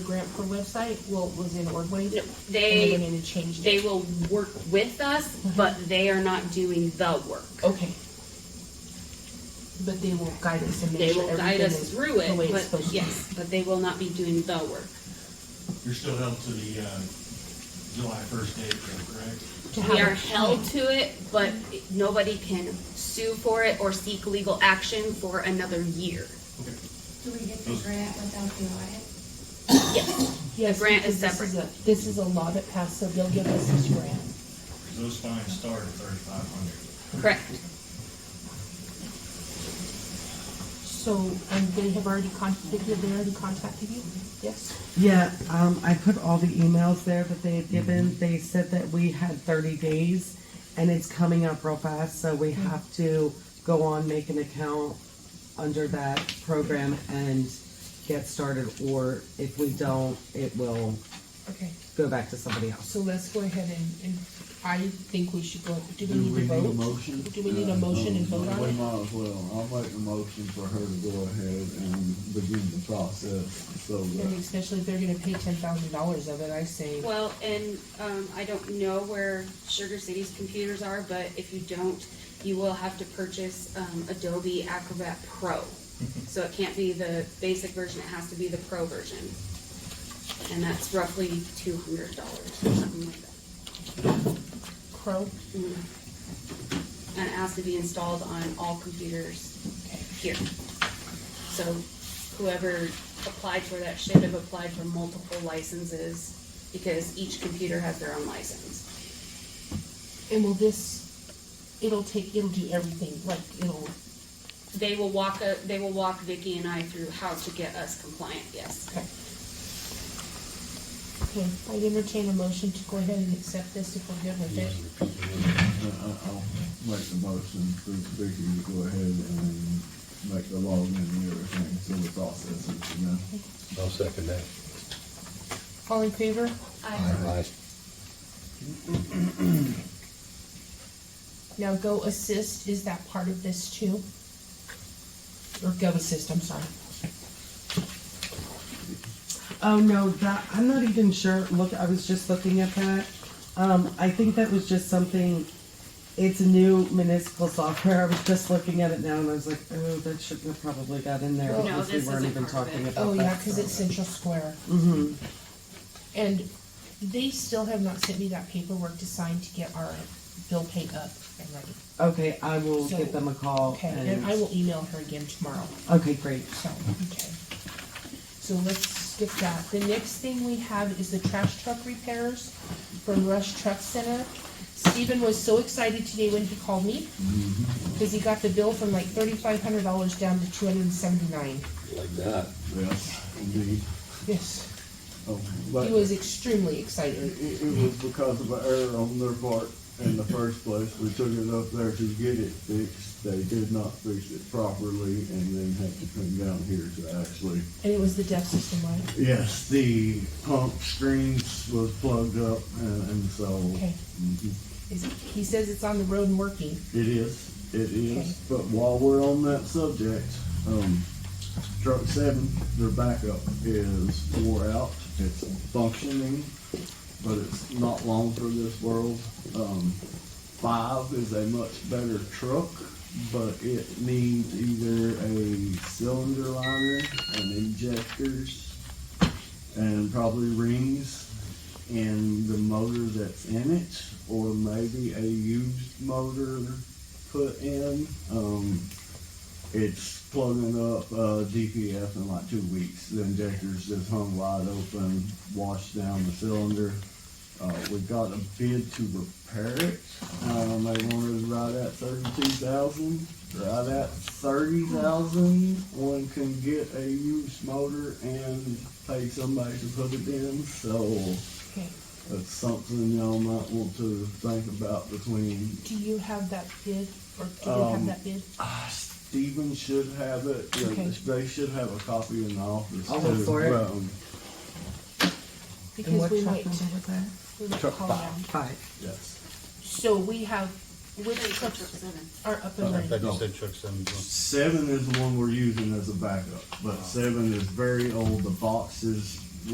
grant per website, well, was in Ordway. No, And They, they Mm-hmm. need to change they it. will work with us, but they are not doing the work. Okay. But they will guide us and They make sure will guide everything us is through the way it's it, but supposed to be. yes, but they will not be doing the work. You're still held to the, uh, July first date, though, correct? To We have are a held plan. to it, but nobody can sue for it or seek legal action for another year. Okay. Do we get the grant without the audit? Yes, Yes, grant because is this separate. a- This is a law that passed, so they'll give us this grant. Those fines start at thirty-five hundred. correct. So, and they have already contacted, they already contacted you? Yes? Yeah, um, I put all the emails there that they had given. They said that we had thirty days and it's coming up real fast, so we have to go on, make an account under that program and get started, or if we don't, it will Okay, go back to somebody else. so let's go ahead and, and I think we should go, do we Do we need to need a vote? motion? Uh, Do we need a motion and vote on We it? might as well. I'll make a motion for her to go ahead and begin the process, so uh, And that. especially if they're gonna pay ten thousand dollars of it, I say, Well, and, um, I don't know where Sugar City's computers are, but if you don't, you will have to purchase, um, Adobe Acrobat Pro. So it can't be the basic version, it has to be the pro version. And that's roughly two hundred dollars or something like that. crow. and it has to be installed on all computers here. So whoever applied for that should have applied for multiple licenses because each computer has their own license. And will this, it'll take, it'll do everything, like, it'll, They will walk, a- they will walk Vicky and I through how to get us compliant, yes. okay. Okay, I'd entertain a motion to go ahead and accept this if we're good with it. I- I'll make the motion for Vicky to go ahead and make the login and everything, so the process is, you know. I'll second that. All in favor? Aye. Now Go Assist, is that part of this too? Or Go Assist, I'm sorry. Oh, no, that, I'm not even sure. Look, I was just looking at that. Um, I think that was just something, it's new municipal software. I was just looking at it now and I was like, oh, that shouldn't have probably got in there No, because we this weren't isn't even part of talking it. about Oh, that. yeah, because it's Central Square. Mm-hmm. And they still have not sent me that paperwork to sign to get our bill paid up and ready. Okay, I will So- give them a call. Okay, and I will email her again tomorrow, Okay, great. so, okay. So let's skip that. The next thing we have is the trash truck repairs from Rush Truck Center. Stephen was so excited today when he called me, because he got the bill from like thirty-five hundred dollars down to two hundred and seventy-nine. Like that. Yes, indeed. Yes. Oh, but- He was extremely excited. It, it- it was because of an error on their part in the first place. We took it up there to get it fixed. They did not fix it properly and then had to come down here to actually. And it was the deaf system, right? Yes, the pump screens was plugged up and, and so. Okay. Mhm. Is- He says it's on the road and working. It is, it Okay. is. But while we're on that subject, um, truck seven, their backup is wore out. It's functioning, but it's not long for this world. Um, five is a much better truck, but it needs either a cylinder liner and injectors and probably rings and the motor that's in it, or maybe a used motor put in. Um, it's plugging up uh, DPF in like two weeks. The injector's just hung wide open, washed down the cylinder. Uh, we got a bid to repair it. Um, they wanted right at thirty-two thousand. Right at thirty thousand, one can get a used motor and pay somebody to put it in. So Okay. that's something y'all might want to think about between, Do you have that bid, or do you have Um, that bid? ah, Steven should have it, you know, Okay. they should have a copy in the office too. I'll look for it. Um, Because we might, was that? we might Truck call five. them. Five. Yes. So we have, which trucks Seven. are up and I thought running? you said truck seven. Seven is the one we're using as a backup, but seven is very old, the box is